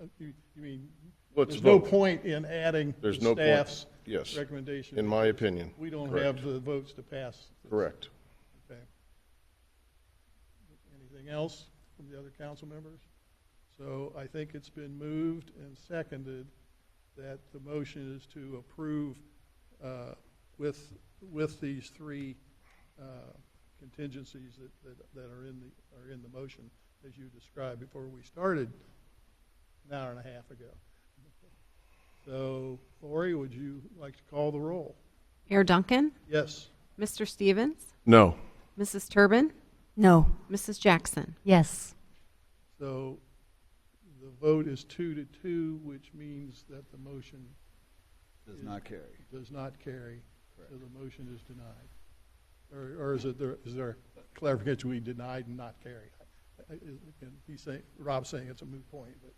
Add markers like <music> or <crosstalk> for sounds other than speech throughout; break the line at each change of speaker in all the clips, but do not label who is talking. Uh, you you mean,
Let's
there's no
vote.
point in adding the
There's no point.
staff's
Yes.
recommendation.
in my opinion.
We don't
Correct.
have the votes to pass. this.
Correct.
Okay. Anything else from the other council members? So I think it's been moved and seconded that the motion is to approve uh, with, with these three uh, contingencies that, that- that are in the, are in the motion, as you described before we started an hour and a half ago. So Lori, would you like to call the roll?
Mayor Duncan,
Yes?
Mr. Stevens,
No.
Mrs. Turbin,
No.
Mrs. Jackson.
Yes.
So the vote is two to two, which means that the motion
Does not carry.
does not carry, so the motion is denied. Or, or is it, there, is there clarification, we denied and not carried? I- I- and He's saying, Rob's saying it's a moot point, but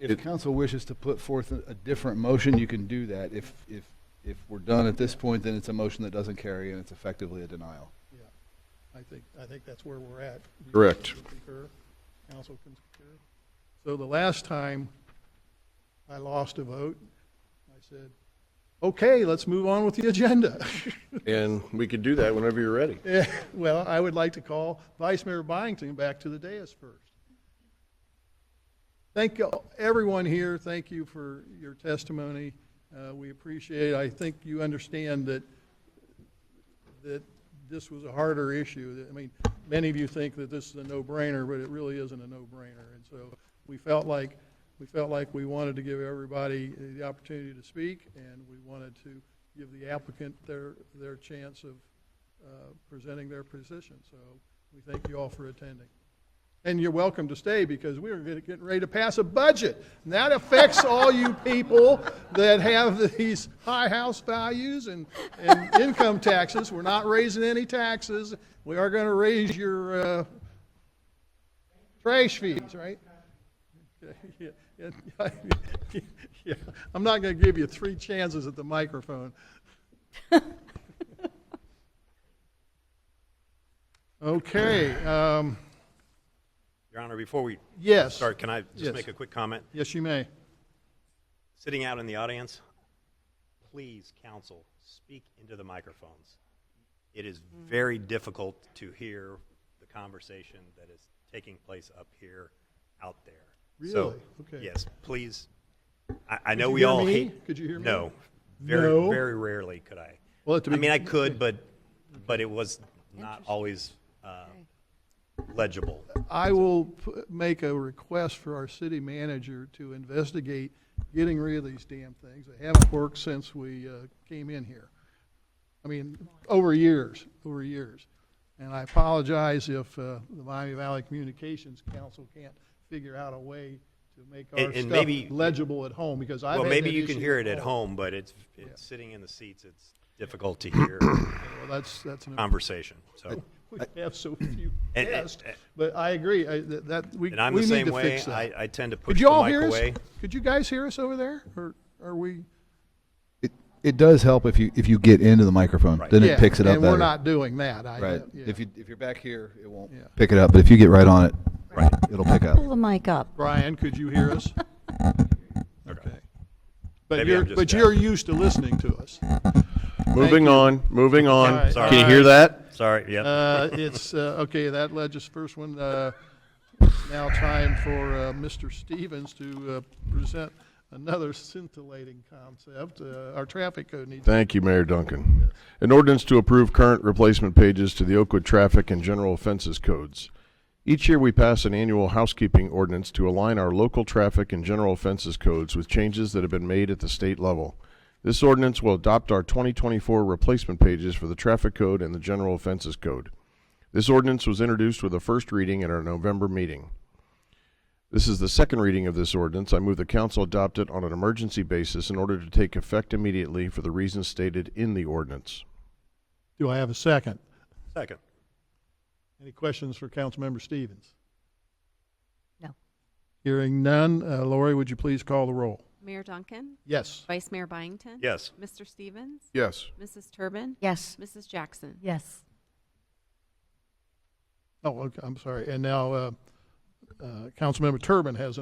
If council wishes to put forth a a different motion, you can do that. If, if, if we're done at this point, then it's a motion that doesn't carry and it's effectively a denial.
yeah, I think, I think that's where we're at. You
Correct.
concur? Council can concur. So the last time I lost a vote, I said, okay, let's move on with the agenda. <laughs>
And we could do that whenever you're ready.
Yeah, <laughs> Well, I would like to call Vice Mayor Byington back to the dais first. Thank you- everyone here, thank you for your testimony. Uh, We appreciate, it. I think you understand that, that this was a harder issue. That- I mean, many of you think that this is a no-brainer, but it really isn't a no-brainer. And so we felt like, we felt like we wanted to give everybody the opportunity to speak, and we wanted to give the applicant their, their chance of, uh, presenting their position. So we thank you all for attending. And you're welcome to stay because we're get- getting ready to pass a budget. And that affects all you people that have these high house values and, and income taxes. We're not raising any taxes. We are going to raise your uh, trash fees, right? Yeah, yeah, <laughs> yeah. I'm not going to give you three chances at the microphone. Okay, um,
Your Honor, before we
yes.
start, can I
Yes.
just make a quick comment?
Yes, you may.
Sitting out in the audience, please, counsel, speak into the microphones. It is very difficult to hear the conversation that is taking place up here, out there. So,
Really? Okay.
Yes, please. I, I know
you
we
hear
all
me?
hate.
Could you hear me?
No, very,
No.
very rarely could I.
Well, at the
I mean, I
begin-
could, but, but it was not always uh, legible.
I will p- make a request for our city manager to investigate getting rid of these damn things. They haven't worked since we, uh, came in here. I mean, over years, over years. And I apologize if, uh, the Miami Valley Communications Council can't figure out a way to make our
And- and maybe-
stuff legible at home because I've had
Well, maybe
that
you can
issue
hear it at home, but it's, it's sitting in the seats, it's difficult
<coughs>
to hear
Well, that's, that's an.
conversation, so.
<laughs> We have so few
Um, And- and-
guests, but I agree, I, that, that, we,
And I'm
we
the
need
same
to
way,
fix that.
I, I tend to
Could
push the
you all
mic
hear us?
away.
Could you guys hear us over there, or are we?
It, it does help if you, if you get into the microphone, then
Yeah,
it picks it up
And we're
better.
not doing that. I,
Right.
yeah.
If you, if you're back here, it won't
Yeah.
pick it up, but if you get right on it, it'll pick up.
Pull the mic up.
Brian, could you hear
<laughs>
us? Okay. But
Maybe
you're,
I'm just
but
deaf.
you're used to listening to us.
Moving
you.
on, moving on.
Sorry.
Can you hear that?
Sorry, yeah.
Uh, it's, uh, okay, that led us first one. Uh, now time for, uh, Mr. Stevens to, uh, present another scintillating concept. Uh, our traffic code needs.
Thank you, Mayor Duncan. An ordinance to approve current replacement pages to the Oakwood Traffic and General Offenses Codes. Each year, we pass an annual housekeeping ordinance to align our local traffic and general offenses codes with changes that have been made at the state level. This ordinance will adopt our 2024 replacement pages for the traffic code and the general offenses code. This ordinance was introduced with a first reading at our November meeting. This is the second reading of this ordinance. I move the council adopt it on an emergency basis in order to take effect immediately for the reasons stated in the ordinance.
Do I have a second?
Second.
Any questions for Councilmember Stevens?
No.
Hearing none, uh, Lori, would you please call the roll?
Mayor Duncan,
Yes.
Vice Mayor Byington.
Yes.
Mr. Stevens,
Yes.
Mrs. Turbin,
Yes.
Mrs. Jackson.
Yes.
Oh, okay, I'm sorry. And now, uh, uh, Councilmember Turbin has